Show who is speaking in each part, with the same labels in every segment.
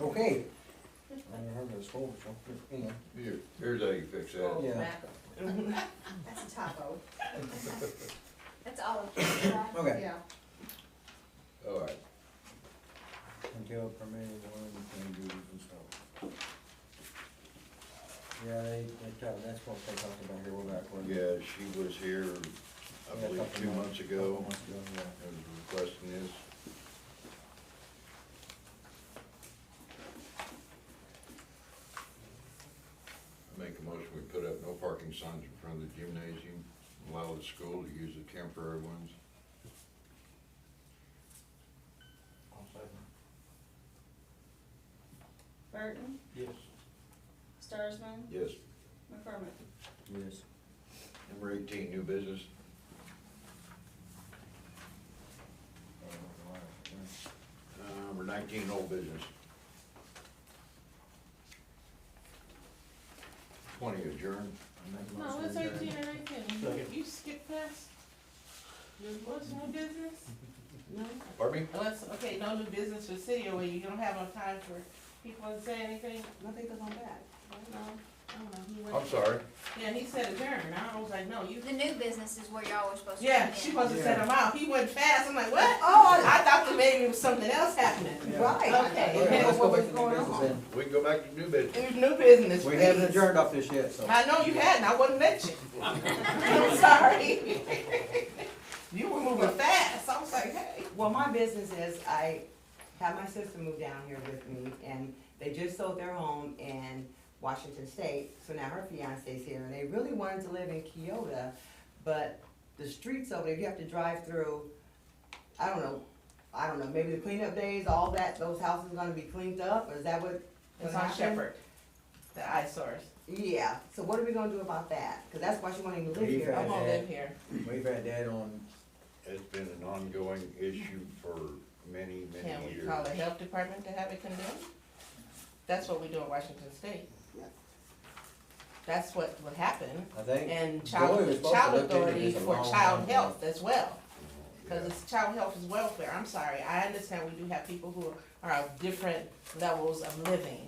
Speaker 1: Okay. I never heard of this whole, so, anyway.
Speaker 2: Here, here's how you fix that.
Speaker 1: Yeah.
Speaker 3: Mac.
Speaker 4: That's a topo. That's all of it, right?
Speaker 1: Okay.
Speaker 4: Yeah.
Speaker 2: All right,
Speaker 1: Until permitted one can do and so. Yeah, they, they, tell- that's what they talked about here, we're back. we're-
Speaker 2: yeah, she was here,
Speaker 1: Yeah,
Speaker 2: I believe,
Speaker 1: couple
Speaker 2: two months ago,
Speaker 1: couple months ago, yeah.
Speaker 2: and requesting this. I Make a motion, we put up no parking signs in front of the gymnasium, allow the school to use the temporary ones.
Speaker 1: I'll second.
Speaker 3: Burton,
Speaker 1: Yes.
Speaker 3: Starsman,
Speaker 2: Yes.
Speaker 3: McCormick.
Speaker 1: Yes.
Speaker 2: Number eighteen, new business, Uh, number nineteen, old business. Twenty adjourned.
Speaker 5: No, it's eighteen and eighteen, you skip past, there was no business? No?
Speaker 2: Pardon me?
Speaker 5: Unless, okay, no new business for city, or you don't have enough time for people to say anything, nothing goes on that. I don't know, I don't know, he
Speaker 2: I'm
Speaker 5: went,
Speaker 2: sorry.
Speaker 1: Oh.
Speaker 5: yeah, he said adjourn, and I was like, no, you,
Speaker 4: The new business is where y'all were supposed to.
Speaker 5: yeah,
Speaker 4: come
Speaker 5: she
Speaker 4: in.
Speaker 5: supposed to set him out, he went fast, I'm like, what?
Speaker 4: Oh,
Speaker 5: I thought that maybe it was something else happening.
Speaker 1: Yeah.
Speaker 5: Right.
Speaker 1: Okay,
Speaker 5: Okay,
Speaker 1: let's go
Speaker 5: what
Speaker 1: back
Speaker 5: was
Speaker 1: to
Speaker 5: going
Speaker 1: new business
Speaker 5: on?
Speaker 1: then.
Speaker 2: We can go back to new business.
Speaker 5: There's new business,
Speaker 1: We haven't
Speaker 5: please.
Speaker 1: adjourned off this yet, so.
Speaker 5: I know you hadn't, I wouldn't let you. I'm sorry. You were moving fast, I was like, hey.
Speaker 6: Well, my business is, I had my sister move down here with me, and they just sold their home in Washington State, so now her fiance's here, and they really wanted to live in Keota, but the streets over there, you have to drive through, I don't know, I don't know, maybe the cleanup days, all that, those houses gonna be cleaned up, or is that what?
Speaker 5: It's
Speaker 6: gonna
Speaker 5: on
Speaker 6: happen?
Speaker 5: Shepherd, the eyesores.
Speaker 6: Yeah, so what are we gonna do about that? Cause that's why she wanted to live
Speaker 1: We've
Speaker 6: here.
Speaker 1: had-
Speaker 5: I won't live here.
Speaker 1: We've had that on,
Speaker 2: It's been an ongoing issue for many,
Speaker 5: Can
Speaker 2: many
Speaker 5: we
Speaker 2: years.
Speaker 5: call the health department to have it condemned? That's what we do in Washington State. That's what would happen,
Speaker 1: I think.
Speaker 5: and
Speaker 1: Joey was
Speaker 5: child,
Speaker 1: supposed to
Speaker 5: child
Speaker 1: look into
Speaker 5: authority
Speaker 1: this a
Speaker 5: for
Speaker 1: long time
Speaker 5: child
Speaker 1: ago.
Speaker 5: health as well. Cause
Speaker 2: Yeah.
Speaker 5: it's child health is welfare, I'm sorry, I understand we do have people who are of different levels of living,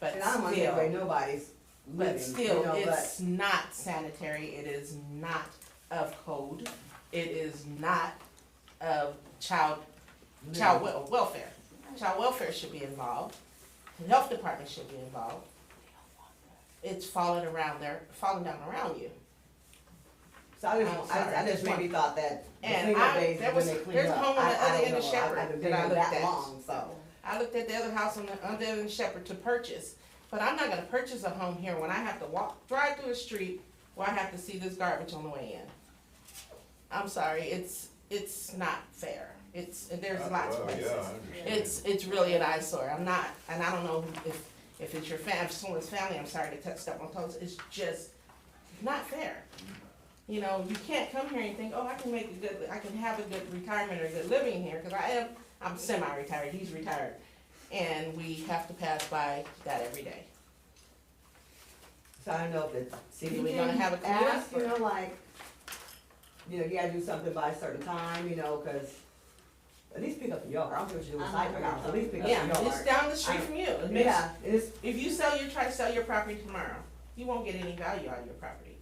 Speaker 5: but
Speaker 6: And I don't wanna take away
Speaker 5: still,
Speaker 6: nobody's
Speaker 5: but
Speaker 6: living, you
Speaker 5: still,
Speaker 6: know, but
Speaker 5: it's not sanitary, it is not of code, it is not of child, child wel- welfare. Child welfare should be involved, the health department should be involved. It's falling around there, falling down around you.
Speaker 6: So I
Speaker 5: I'm
Speaker 6: just, I
Speaker 5: Oh, sorry,
Speaker 6: just, I
Speaker 5: just
Speaker 6: just
Speaker 5: one.
Speaker 6: maybe thought that the
Speaker 5: And
Speaker 6: cleanup
Speaker 5: I-
Speaker 6: days
Speaker 5: there
Speaker 6: is
Speaker 5: was-
Speaker 6: when they clean
Speaker 5: there's a
Speaker 6: up.
Speaker 5: home on the
Speaker 6: I- I
Speaker 5: other
Speaker 6: don't
Speaker 5: end of
Speaker 6: know. I-
Speaker 5: Shepherd
Speaker 6: I haven't
Speaker 5: that
Speaker 6: been
Speaker 5: I
Speaker 6: here
Speaker 5: looked
Speaker 6: that
Speaker 5: at.
Speaker 6: long, so.
Speaker 5: I looked at the other house on the, on the other shepherd to purchase, but I'm not gonna purchase a home here when I have to walk, drive through the street where I have to see this garbage on the way in. I'm sorry, it's, it's not fair. It's, there's
Speaker 2: Uh,
Speaker 5: lots of
Speaker 2: well, yeah,
Speaker 5: places.
Speaker 2: I understand.
Speaker 5: It's, it's really an eyesore. I'm not, and I don't know if, if it's your fam, someone's family, I'm sorry to touch up on toes. It's just not fair. You know, you can't come here and think, oh, I can make a good, I can have a good retirement or a good living here, cause I am, I'm semi-retired, he's retired. And we have to pass by that every day.
Speaker 6: So I don't know if the city
Speaker 5: We're
Speaker 6: can
Speaker 5: gonna have a cleanup
Speaker 6: ask, you
Speaker 5: or-
Speaker 6: know, like, you know, you gotta do something by a certain time, you know, cause at least pick up the yard. I don't care what you do with
Speaker 4: I'm
Speaker 6: site,
Speaker 4: not
Speaker 6: but at least pick up the
Speaker 5: Yeah,
Speaker 6: yard.
Speaker 5: it's down the street from you. It makes-
Speaker 6: Yeah, it's,
Speaker 5: If you sell your, try to sell your property tomorrow, you won't get any value out of your property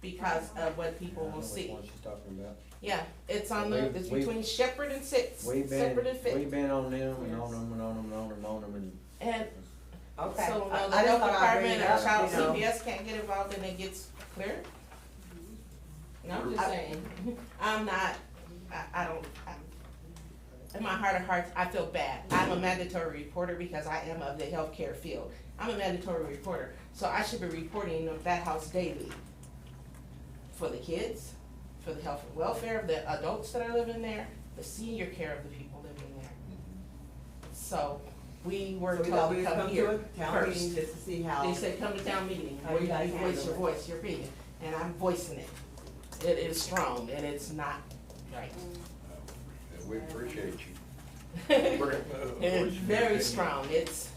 Speaker 5: because of what people
Speaker 1: I don't know
Speaker 5: will
Speaker 1: which
Speaker 5: see.
Speaker 1: one she's talking about.
Speaker 5: Yeah, it's on the, it's
Speaker 1: We've-
Speaker 5: between Shepherd and Six,
Speaker 1: We've been,
Speaker 5: Shepherd and Fitz.
Speaker 1: we've been on them and on them and on them and on them and on them and
Speaker 5: And
Speaker 6: okay.
Speaker 5: so
Speaker 6: I-
Speaker 5: uh, the
Speaker 6: I just
Speaker 5: health
Speaker 6: thought I'd bring
Speaker 5: department
Speaker 6: it
Speaker 5: or
Speaker 6: up,
Speaker 5: child
Speaker 6: you know.
Speaker 5: CPS can't get involved and it gets cleared? No, I'm just
Speaker 6: I-
Speaker 5: saying, I'm not, I, I don't, I, in my heart of hearts, I feel bad. I'm a mandatory reporter because I am of the healthcare field. I'm a mandatory reporter, so I should be reporting of that house daily. For the kids, for the health and welfare of the adults that are living there, the senior care of the people living there. So, we were
Speaker 6: So we thought
Speaker 5: told
Speaker 6: we'd
Speaker 5: to
Speaker 6: come
Speaker 5: come
Speaker 6: to
Speaker 5: here
Speaker 6: a
Speaker 5: first.
Speaker 6: town meeting just to see how.
Speaker 5: They said, come to town meeting,
Speaker 6: How
Speaker 5: where
Speaker 6: you
Speaker 5: you
Speaker 6: guys
Speaker 5: can voice
Speaker 6: handle
Speaker 5: your
Speaker 6: it.
Speaker 5: voice, your opinion, and I'm voicing it. It is strong and it's not right.
Speaker 2: And we appreciate you.
Speaker 5: It's very strong, it's,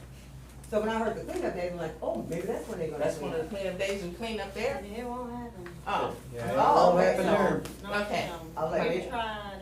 Speaker 6: So when I heard the cleanup days, I'm like, oh, maybe that's when they're gonna.
Speaker 5: that's
Speaker 6: clean
Speaker 5: one of
Speaker 6: up.
Speaker 5: the cleanup days, we clean up there,
Speaker 4: It won't happen.
Speaker 5: oh,
Speaker 1: Yeah, it
Speaker 6: Oh,
Speaker 1: all
Speaker 6: okay,
Speaker 1: happened
Speaker 6: so-
Speaker 1: there.
Speaker 5: okay.
Speaker 3: um,
Speaker 6: I'll let
Speaker 5: Maybe
Speaker 6: it,
Speaker 4: Try.